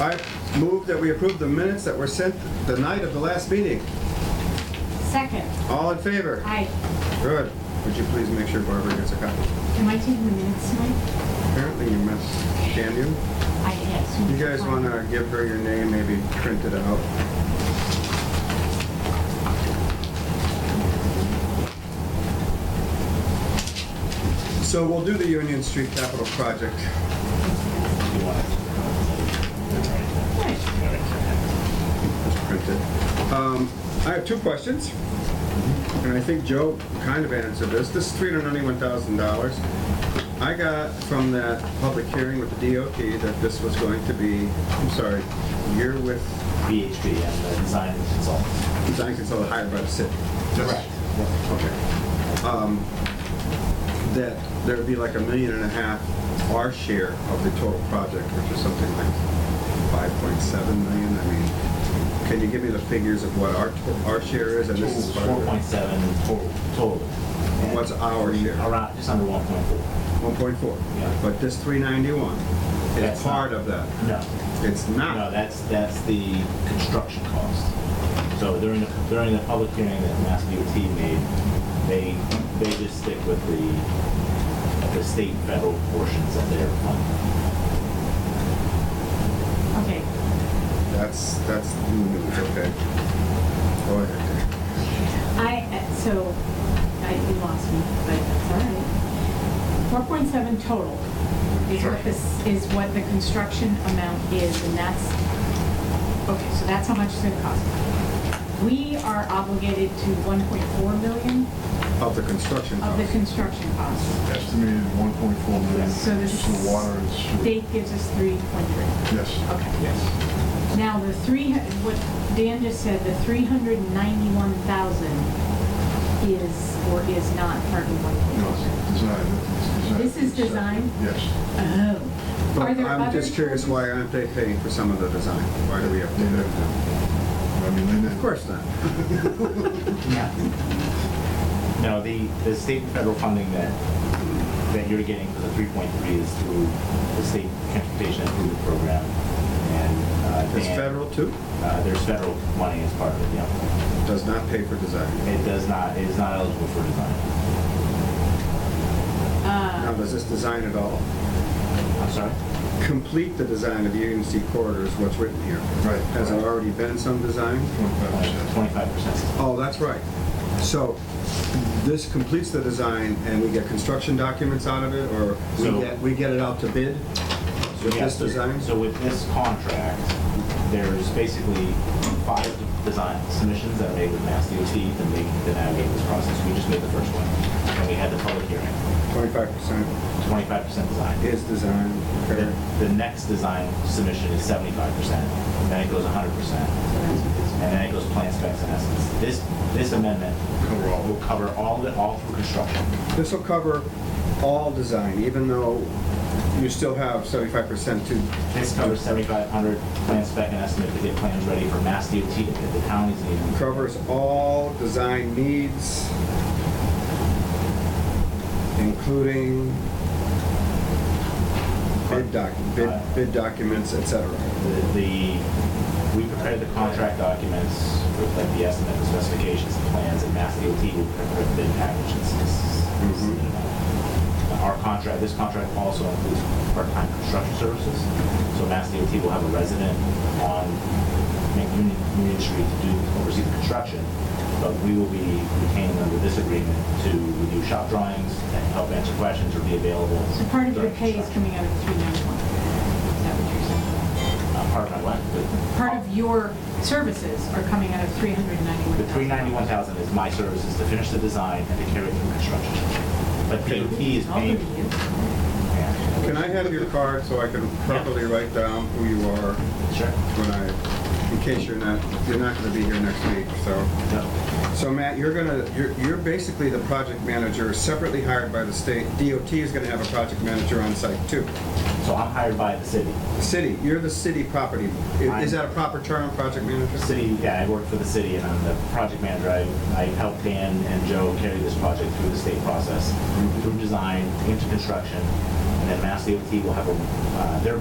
I move that we approve the minutes that were sent the night of the last meeting. Second, All in favor? I, Good. Would you please make sure Barbara gets a copy? am I taking the minutes tonight? Apparently you missed, can you? I yes. You guys want to give her your name, maybe print it out? So we'll do the Union Street Capital Project. You want it? That's right. You want it. It's printed. Um, I have two questions, and I think Joe kind of answered this. This is $391,000. I got from that public hearing with the DOT that this was going to be, I'm sorry, year with BHP, and the design consultants. design consultant hired by the city. Correct. Okay. Um, That there'd be like a million and a half our share of the total project, which is something like 5.7 million. I mean, can you give me the figures of what our, to- our share is? And this is part Four of point it. seven total, total. And what's our share? Around, just under one point four. 1.4. Yeah. But this 391 is That's not- part of that. No, It's no, not. that's, that's the construction cost. So during the, during the public hearing that Mass DOT made, they, they just stick with the, the state federal portions of their fund. Okay, That's, that's, mm, okay. Go ahead. I, uh, so, I, you lost me, but it's all right. Four point seven total is what this, is what the construction amount is, and that's, okay, so that's how much it's gonna cost. We are obligated to one point four million Of the construction of the cost. construction cost. Estimated 1.4 million So this- for water and sewer. State gives us three point three. Yes. Okay. Yes. Now, the three, what Dan just said, the three hundred ninety-one thousand is, or is not part of No, one it's design. It's design. This is design? Yes. point four. Oh. Are But there I'm other just curious, charges? why aren't they paying for some of the design? Why do we have They to? have to. I mean, they didn't. Of course not. Yeah. No, the, the state and federal funding that, that you're getting for the three point three is through the state transportation improvement program. And, uh, It's Dan- federal too? Uh, there's federal money as part of it, yeah. Does not pay for design. It does not, it is not eligible for design. Now, Uh, does this design at all I'm sorry? complete the design of the Union Street corridor is what's written here? Right. Has there already been some design? Twenty-five percent. Oh, that's right. So this completes the design and we get construction documents out of it or we So- get, we get it out to bid? With this design? So with this contract, there's basically five design submissions that are made with Mass DOT to make, to navigate this process. We just made the first one, and we had the public hearing. Twenty-five percent Twenty-five percent design. is design. The, okay. the next design submission is seventy-five percent, then it goes hundred percent, so that's what this- and then it goes plan specs and estimates. This, this amendment Cover all. will cover all the, all through construction. This will cover all design, even though you still have seventy-five percent to, This covers seventy-five hundred plan spec and estimate to get plans ready for Mass DOT to get the counties needing. covers all design needs, including bid doc, bid, bid documents, et cetera. The, the- we prepared the contract documents with like the estimate, the specifications, the plans, and Mass DOT will prepare the bid package and s- s- submit it out. Our contract, this contract also includes part-time construction services, so Mass DOT will have a resident on Mc- Union, Union Street to do, oversee the construction, but we will be retaining under this agreement to review shop drawings and help answer questions or be available. So part of your during pay is coming construction. out of three ninety-one. Is that what you're saying? Uh, Part of my wife, but- Part of your services are coming out of three hundred ninety-one The thousand. three ninety-one thousand is my services to finish the design and to carry it through construction. But DOT is paying. Yeah. Can I have your card so I can properly write down who you are Sure. when I, in case you're not, you're not gonna be here next week, so. No. So Matt, you're gonna, you're, you're basically the project manager separately hired by the state. DOT is gonna have a project manager on site too. So I'm hired by the city. The City, you're the city property, i- is that a proper term, project The manager? city, yeah, I work for the city and I'm the project manager. I, I help Dan and Joe carry this project through the state process, through design, into construction. And then Mass DOT will have a, uh, their